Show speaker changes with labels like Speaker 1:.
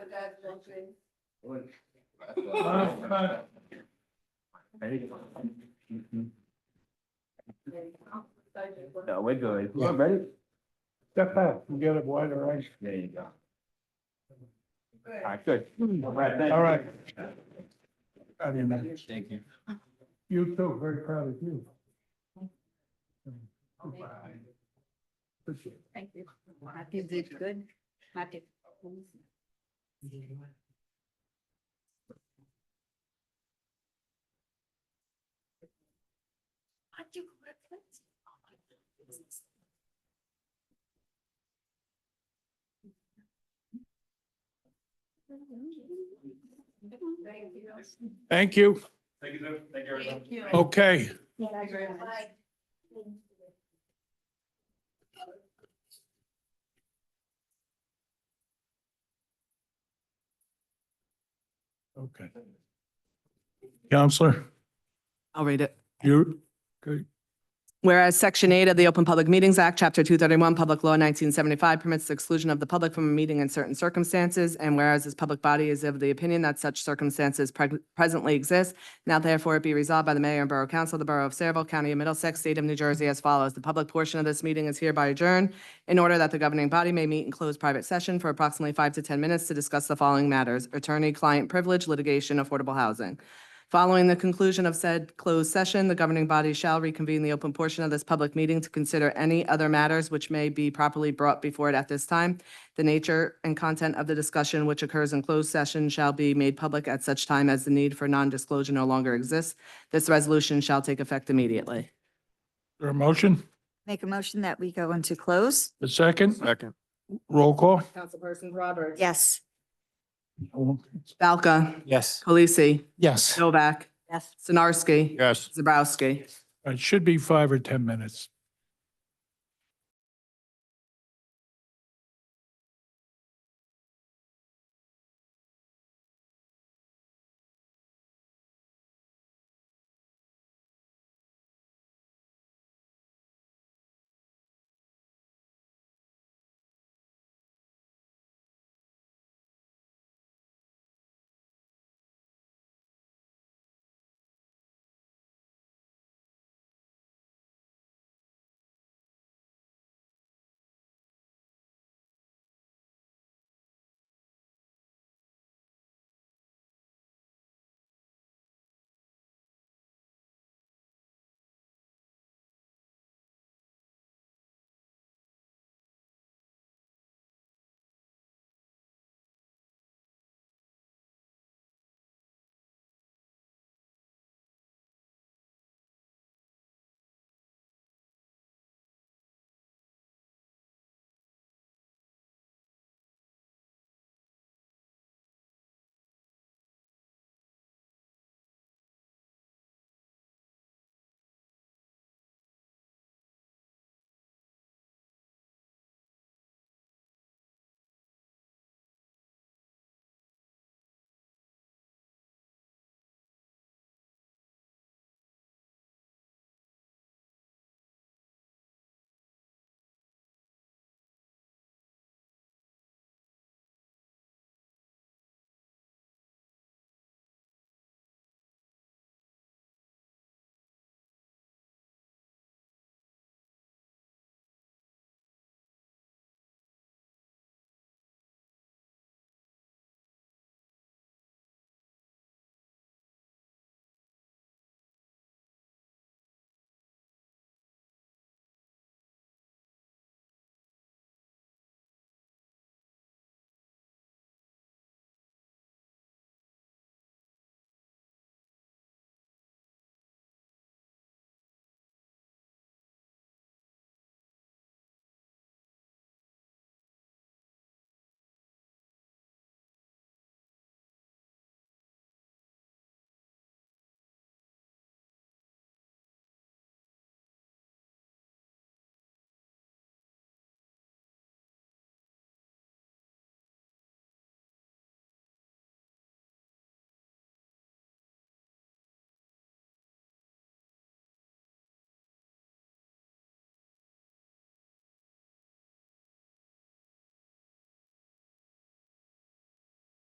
Speaker 1: something?
Speaker 2: Mm-hmm. No, we're good. We're ready.
Speaker 3: Step back and get a wider range.
Speaker 2: There you go. All right, good. All right, thank you.
Speaker 3: All right. I didn't know.
Speaker 2: Thank you.
Speaker 3: You too, very proud of you. Appreciate
Speaker 1: Thank you. Matthew did good. Matthew.
Speaker 3: it.
Speaker 1: Matthew. Thank you.
Speaker 3: Thank you.
Speaker 2: Thank you, thank you.
Speaker 1: Thank you.
Speaker 3: Okay,
Speaker 1: Bye.
Speaker 3: okay. Counselor,
Speaker 4: I'll read it.
Speaker 3: you, good.
Speaker 4: Whereas Section 8 of the Open Public Meetings Act, Chapter 231, Public Law 1975 permits the exclusion of the public from a meeting in certain circumstances, and whereas this public body is of the opinion that such circumstances preg- presently exist, now therefore it be resolved by the Mayor and Borough Council of the Borough of Saraville, County of Middlesex, State of New Jersey as follows. The public portion of this meeting is hereby adjourned in order that the governing body may meet in closed private session for approximately five to 10 minutes to discuss the following matters: attorney-client privilege, litigation, affordable housing. Following the conclusion of said closed session, the governing body shall reconvene the open portion of this public meeting to consider any other matters which may be properly brought before it at this time. The nature and content of the discussion which occurs in closed session shall be made public at such time as the need for non-disclosure no longer exists. This resolution shall take effect immediately.
Speaker 3: There a motion?
Speaker 5: Make a motion that we go into close?
Speaker 3: A second?
Speaker 6: Second.
Speaker 3: Roll call?
Speaker 4: Councilperson Roberts.
Speaker 5: Yes.
Speaker 4: Balca.
Speaker 6: Yes.
Speaker 4: Polisi.
Speaker 3: Yes.
Speaker 4: Novak.
Speaker 5: Yes.
Speaker 4: Sinarski.
Speaker 6: Yes.
Speaker 4: Zabrowski.
Speaker 3: It should be five or 10 minutes.